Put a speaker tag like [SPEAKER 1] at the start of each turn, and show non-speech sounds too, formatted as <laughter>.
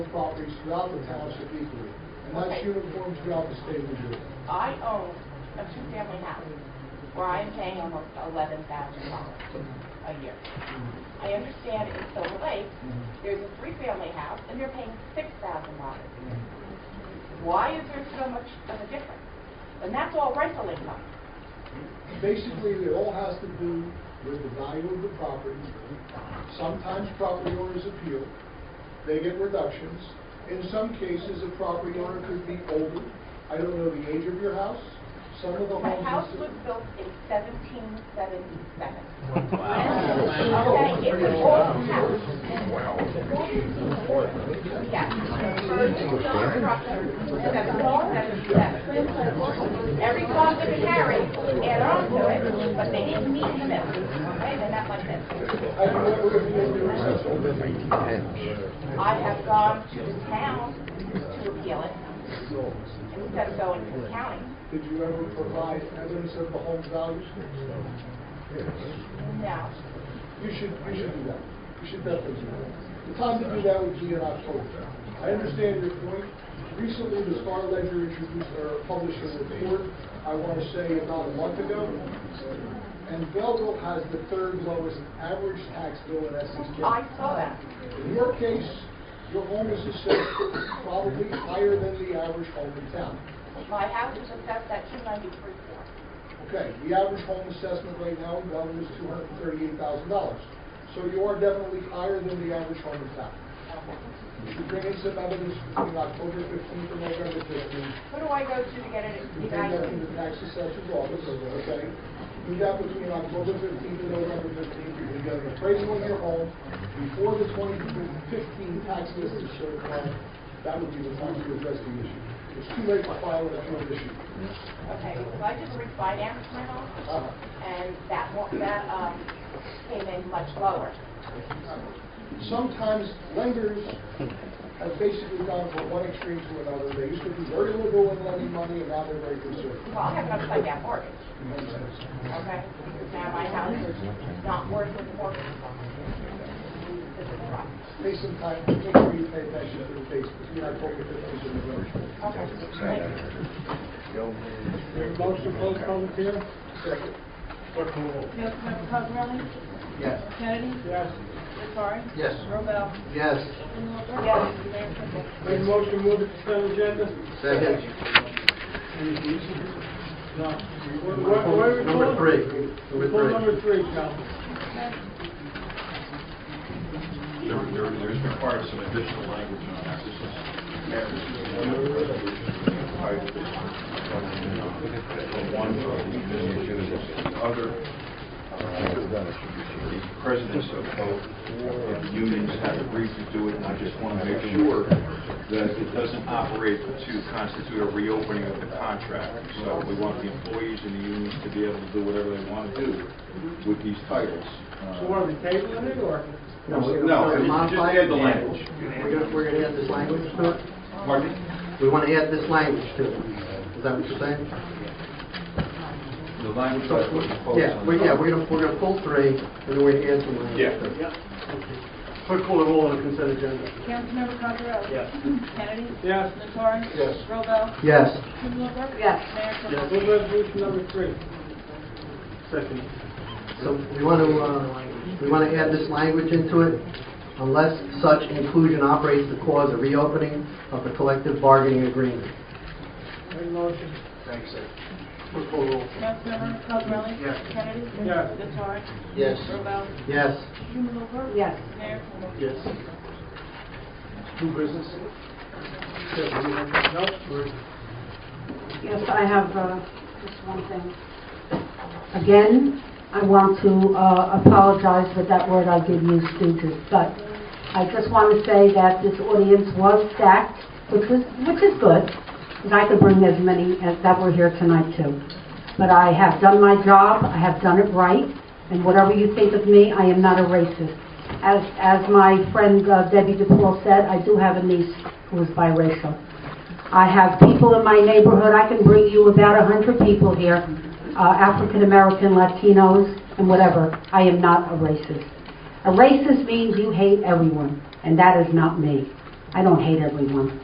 [SPEAKER 1] properties throughout the township equally, and that's
[SPEAKER 2] Okay.
[SPEAKER 1] uniform throughout the state of New Jersey.
[SPEAKER 2] I own a two-family house where I'm paying almost eleven thousand dollars a year. I understand in Silver Lake, there's a three-family house and they're paying six thousand dollars. Why is there so much of a difference? And that's all rental income.
[SPEAKER 1] Basically, it all has to do with the value of the property. Sometimes property owners appeal, they get reductions. In some cases, a property owner could be older, I don't know the age of your house, some of the homes...
[SPEAKER 2] My
[SPEAKER 1] in
[SPEAKER 2] house
[SPEAKER 1] Sil-
[SPEAKER 2] was built in seventeen seventy-seven.
[SPEAKER 3] Oh,
[SPEAKER 1] Wow.
[SPEAKER 2] Okay, it's an old house. Yes. Every song that they carry, add on to it, but they didn't mean the middle, okay, they're not like this.
[SPEAKER 1] I don't know if you're doing something.
[SPEAKER 2] I have gone to the town to appeal it, instead of going to the county.
[SPEAKER 1] Did you ever provide evidence of the home values?
[SPEAKER 2] No,
[SPEAKER 1] You should, you should do that. You should definitely do that. The time to do that would be in October. I understand your point. Recently, the Star Ledger introduced or published a report, I want to say about a month ago. And Belleville has the third lowest average tax bill in Essex
[SPEAKER 2] I
[SPEAKER 1] County.
[SPEAKER 2] saw that.
[SPEAKER 1] In your case, your home is assessed probably higher than the average home in town.
[SPEAKER 2] My house was assessed at two ninety-three four.
[SPEAKER 1] Okay, the average home assessment right now in Belleville is two hundred and thirty-eight thousand dollars. So you are definitely higher than the average home in town. You should bring in some evidence between October fifteenth and November fifteenth.
[SPEAKER 2] Who do I go to to get it
[SPEAKER 1] You bring that
[SPEAKER 2] evaluated?
[SPEAKER 1] into the tax assessor's office, okay? Do that between October fifteenth and November fifteenth, you can get an appraisal of your home before the twenty fifteen tax list is certified. That would be the time to address the issue. It's too late to file an appeal issue.
[SPEAKER 2] Okay, so I just refinanced my home.
[SPEAKER 1] Uh-huh.
[SPEAKER 2] and that, wa- that um, came in much lower.
[SPEAKER 1] sometimes lenders have basically gone from one extreme to another. They used to be very liberal in lending money, and now they're very conservative.
[SPEAKER 2] Well, I have an upside down mortgage,
[SPEAKER 1] Makes sense.
[SPEAKER 2] okay? Now my house is not worth what the mortgage is on. This is rough.
[SPEAKER 1] Take some time, make sure you pay attention to the dates between October 15th and November 15th.
[SPEAKER 2] Okay, thank you.
[SPEAKER 4] Motion to close public hearing?
[SPEAKER 1] Second.
[SPEAKER 4] Clerk will roll.
[SPEAKER 5] Councilmember Cosarelli?
[SPEAKER 1] Yes.
[SPEAKER 5] Kennedy?
[SPEAKER 4] Yes.
[SPEAKER 5] Nattari?
[SPEAKER 1] Yes.
[SPEAKER 5] Robel?
[SPEAKER 1] Yes.
[SPEAKER 5] Strumelberg?
[SPEAKER 2] Yes.
[SPEAKER 5] Mayor Kibble?
[SPEAKER 4] Make a motion to move the consent agenda?
[SPEAKER 6] Second.
[SPEAKER 4] Where- where- where we
[SPEAKER 6] Number
[SPEAKER 4] going?
[SPEAKER 6] three.
[SPEAKER 4] We're
[SPEAKER 6] Number
[SPEAKER 4] going
[SPEAKER 6] three.
[SPEAKER 4] number three, Council.
[SPEAKER 3] There, there, there's required some additional language on that. This is, yeah, this is one of the resolutions that required this one. One for the business, the other, uh, the presidents of both of the unions have agreed to do it, and I just want to make sure that it doesn't operate to constitute a reopening of the contract. So we want the employees and the unions to be able to do whatever they want to do with these titles. Uh,
[SPEAKER 4] So are we tabling it, or?
[SPEAKER 3] No,
[SPEAKER 6] We're
[SPEAKER 3] no,
[SPEAKER 6] gonna
[SPEAKER 3] just-
[SPEAKER 6] modify
[SPEAKER 3] just add the
[SPEAKER 6] it.
[SPEAKER 3] language.
[SPEAKER 6] We're gonna, we're gonna add this language to it?
[SPEAKER 3] Pardon me?
[SPEAKER 6] We wanna add this language to it. Is that what you're saying?
[SPEAKER 3] The language I was proposed.
[SPEAKER 6] Yeah, we, yeah, we're gonna, we're gonna pull three, and then we're gonna add some language.
[SPEAKER 3] Yeah.
[SPEAKER 6] to it.
[SPEAKER 4] Yeah. Clerk will roll on the consent agenda.
[SPEAKER 5] Councilmember Cosarelli?
[SPEAKER 4] Yes.
[SPEAKER 5] <clears throat> Kennedy?
[SPEAKER 4] Yes.
[SPEAKER 5] Nattari?
[SPEAKER 1] Yes.
[SPEAKER 5] Robel?
[SPEAKER 6] Yes.
[SPEAKER 5] Strumelberg? Yes. Mayor Kibble?
[SPEAKER 4] Move resolution number three. Second.
[SPEAKER 6] So we want to, uh, we want to add this language into it, unless such inclusion operates to cause a reopening of the collective bargaining agreement.
[SPEAKER 4] Make a motion.
[SPEAKER 6] Clerk will roll.
[SPEAKER 5] Councilmember Cosarelli?
[SPEAKER 6] Yes.
[SPEAKER 5] Kennedy?
[SPEAKER 4] Yes.
[SPEAKER 5] Nattari?
[SPEAKER 6] Yes.
[SPEAKER 5] Robel?
[SPEAKER 6] Yes.
[SPEAKER 5] Strumelberg? Yes. Mayor Kibble?
[SPEAKER 6] Yes.
[SPEAKER 4] New business? No, we're-
[SPEAKER 7] Yes, I have uh, just one thing. Again, I want to uh, apologize for that word I did use, stooges, but I just want to say that this audience was stacked, which was, which is good, and I could bring as many as that were here tonight too. But I have done my job, I have done it right, and whatever you think of me, I am not a racist. As, as my friend uh, Debbie DePaul said, I do have a niece who is biracial. I have people in my neighborhood, I can bring you about a 100 people here, uh, African-American, Latinos, and whatever. I am not a racist. A racist means you hate everyone, and that is not me. I don't hate everyone.